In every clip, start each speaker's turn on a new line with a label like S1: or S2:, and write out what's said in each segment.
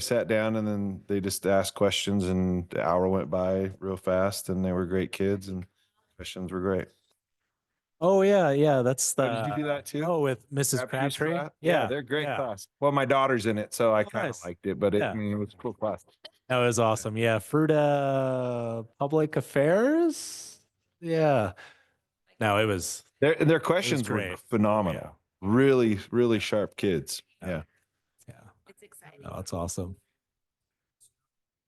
S1: sat down and then they just asked questions and the hour went by real fast and they were great kids and questions were great.
S2: Oh yeah, yeah. That's the
S1: Oh, Did you do that too?
S2: oh with Mrs.
S1: Crabtree's
S2: Crabtree.
S1: class?
S2: Yeah,
S1: They're a great
S2: yeah. Oh,
S1: class. Well, my daughter's in it, so I kind of
S2: nice.
S1: liked it, but it,
S2: Yeah.
S1: I mean, it was a cool class.
S2: that was awesome. Yeah, Fruta Public Affairs. Yeah. No, it was.
S1: Their, their questions were
S2: great.
S1: phenomenal. Really, really sharp kids.
S2: Yeah.
S1: Yeah.
S2: Yeah,
S3: It's exciting.
S2: no, that's awesome.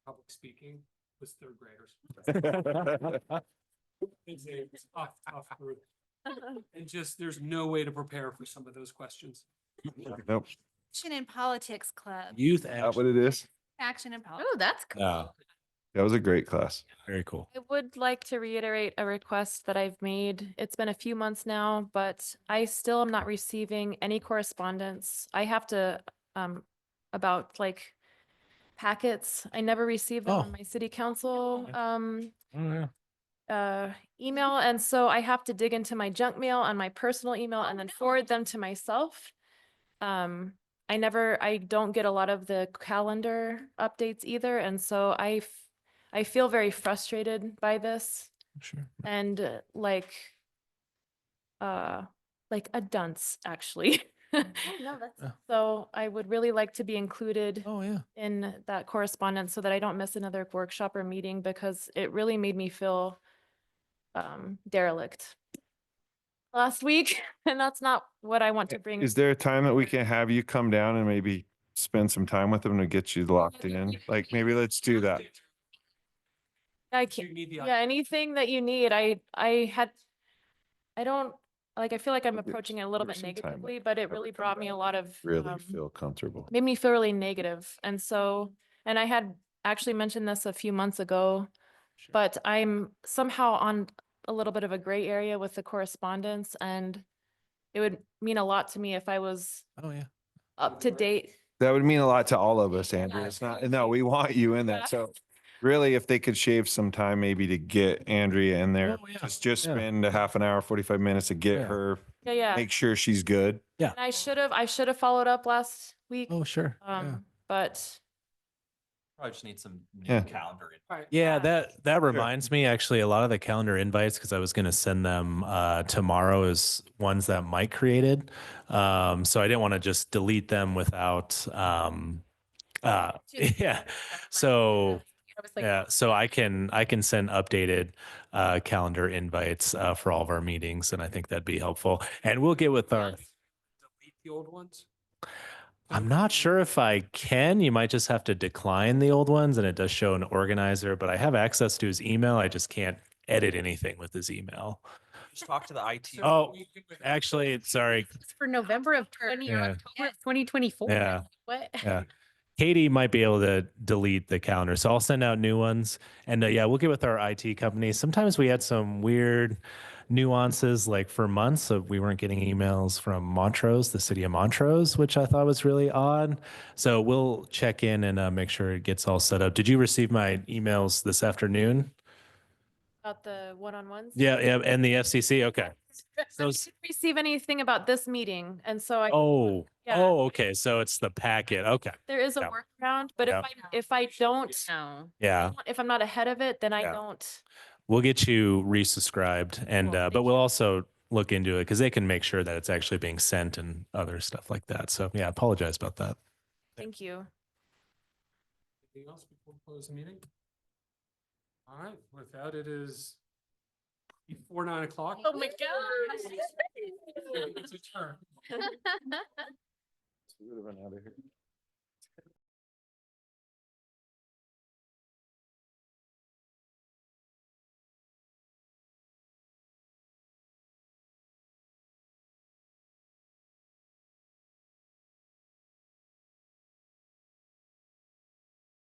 S4: public speaking was third graders. It's a tough, tough group. And just, there's no way to prepare for some of those questions.
S1: Nope,
S3: Action and Politics Club,
S2: Youth
S1: not
S2: action.
S1: what it is.
S3: Action and Politics.
S5: Oh, that's cool.
S2: Yeah,
S1: That was a great class.
S2: very cool.
S5: I would like to reiterate a request that I've made. It's been a few months now, but I still am not receiving any correspondence. I have to, um, about like packets. I never receive them
S2: Oh.
S5: on my city council, um,
S2: yeah.
S5: uh, email. And so I have to dig into my junk mail on my personal email and then forward them to myself. Um, I never, I don't get a lot of the calendar updates either. And so I, f- I feel very frustrated by this
S2: Sure.
S5: and uh, like, uh, like a dunce, actually.
S3: Oh, No, that's.
S5: So I would really like to be included
S2: Oh yeah.
S5: in that correspondence so that I don't miss another workshop or meeting because it really made me feel um, derelict last week. And that's not what I want to bring.
S1: Is there a time that we can have you come down and maybe spend some time with them to get you locked in? Like, maybe let's do that.
S5: I can't,
S4: You need the.
S5: yeah, anything that you need. I, I had, I don't, like, I feel like I'm
S1: Okay,
S5: approaching it a little
S1: there's
S5: bit
S1: some time,
S5: negatively, but it
S1: ever
S5: really
S1: come
S5: brought me a
S1: back,
S5: lot of.
S1: Really
S5: um,
S1: feel comfortable.
S5: made me feel really negative. And so, and I had actually mentioned this a few months ago, but I'm somehow on a little bit of a gray area with the correspondence and it would mean a lot to me if I was
S2: Oh yeah.
S5: up to date.
S1: That would mean a lot to all of us, Andrew.
S5: Yeah,
S1: It's not,
S5: totally.
S1: no, we want you in that. So really, if they could shave some time maybe to get Andrea in there,
S2: Oh, yeah.
S1: just, just
S2: Yeah.
S1: spend a half an hour, forty-five minutes to get
S2: Yeah.
S1: her,
S5: Yeah, yeah. And
S1: make sure she's good.
S5: I should have, I should have followed up last week.
S2: Oh sure. yeah.
S5: Um, but
S6: Probably just need some new
S1: Yeah.
S6: calendar. in-
S4: All right.
S2: Yeah, that that reminds me actually a lot of the calendar invites because I was going to send them uh, tomorrow is ones that Mike created, um, so I didn't want to just delete them without. Um, uh, yeah, so yeah, so I can I can send updated uh, calendar invites uh, for all of our meetings, and I think that'd be helpful. And we'll get with our.
S4: Delete the old ones. Um,
S2: I'm not sure if I can. You might just have to decline the old ones and it does show an organizer, but I have access to his email. I just can't edit anything with his email.
S6: Just talk to the IT.
S4: So
S2: Oh,
S4: we can-
S2: Actually, it's- sorry.
S7: for November of twenty,
S2: Yeah.
S7: October of twenty twenty-four.
S2: Yeah.
S7: What?
S2: Yeah. Katie might be able to delete the calendar. So I'll send out new ones. And uh, yeah, we'll get with our IT company. Sometimes we had some weird nuances, like for months of we weren't getting emails from Montrose, the city of Montrose, which I thought was really odd. So we'll check in and uh, make sure it gets all set up. Did you receive my emails this afternoon?
S5: about the one-on-ones.
S2: Yeah, yeah, and the FCC. Okay. So, s-
S5: Didn't receive anything about this meeting. And so I.
S2: oh,
S5: Yeah.
S2: oh, okay. So it's the packet. Okay.
S5: There is a
S2: Yeah.
S5: workaround, but if
S2: Yeah.
S5: I, if I don't,
S7: No.
S2: Yeah.
S5: if I'm not ahead of it, then I
S2: Yeah.
S5: don't.
S2: We'll get you resubscribed and,
S5: Cool,
S2: uh, but
S5: thank
S2: we'll
S5: you.
S2: also look into it because they can make sure that it's actually being sent and other stuff like that. So yeah, I apologize about that.
S5: Thank you.
S4: Anything else before we close the meeting? All right, with that, it is before nine o'clock.
S7: Oh my
S4: It's adjourned.
S1: We would have been out of here.